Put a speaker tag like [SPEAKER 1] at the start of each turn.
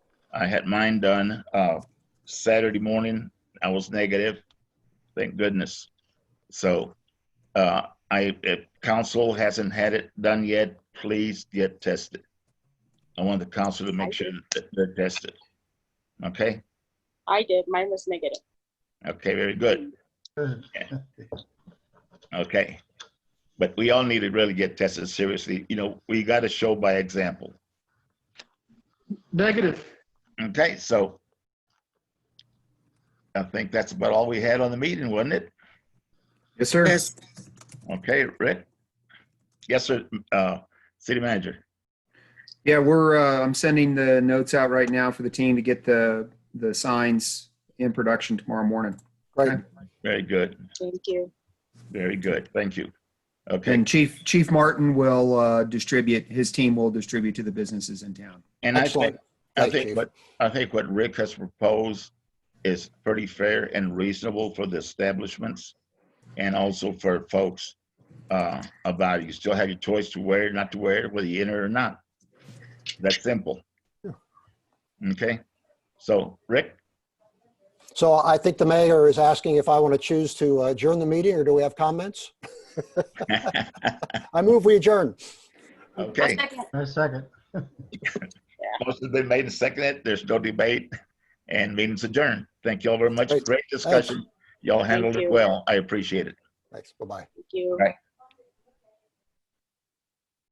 [SPEAKER 1] I had mine done uh, Saturday morning. I was negative, thank goodness. So uh, I, if council hasn't had it done yet, please get tested. I want the council to make sure that they're tested. Okay,
[SPEAKER 2] I did. Mine was negative.
[SPEAKER 1] okay, very good.
[SPEAKER 3] Good.
[SPEAKER 1] Okay. But we all need to really get tested seriously. You know, we got to show by example.
[SPEAKER 3] Negative.
[SPEAKER 1] Okay, so I think that's about all we had on the meeting, wasn't it?
[SPEAKER 4] Yes, sir.
[SPEAKER 5] Yes,
[SPEAKER 1] Okay, Rick? Yes, sir, uh, city manager.
[SPEAKER 4] Yeah, we're, uh, I'm sending the notes out right now for the team to get the, the signs in production tomorrow morning.
[SPEAKER 5] great.
[SPEAKER 1] Very good,
[SPEAKER 2] Thank you.
[SPEAKER 1] very good. Thank you. Okay,
[SPEAKER 4] And Chief, Chief Martin will, uh, distribute, his team will distribute to the businesses in town.
[SPEAKER 1] and I think,
[SPEAKER 5] Excellent.
[SPEAKER 1] I
[SPEAKER 5] Thank you.
[SPEAKER 1] think what, I think what Rick has proposed is pretty fair and reasonable for the establishments and also for folks, uh, about you still have your choice to wear, it, not to wear, it, whether you enter or not. That's simple. Okay, so Rick,
[SPEAKER 5] So I think the mayor is asking if I want to choose to uh, adjourn the meeting or do we have comments? I move we adjourn.
[SPEAKER 1] okay.
[SPEAKER 3] I second.
[SPEAKER 1] Most has been made and seconded. There's no debate. And meeting's adjourned. Thank you all very much.
[SPEAKER 5] Great.
[SPEAKER 1] Great discussion. Y'all handled
[SPEAKER 2] Thank
[SPEAKER 1] it
[SPEAKER 2] you.
[SPEAKER 1] well. I appreciate it.
[SPEAKER 5] Thanks, bye-bye.
[SPEAKER 2] Thank you.
[SPEAKER 1] Right.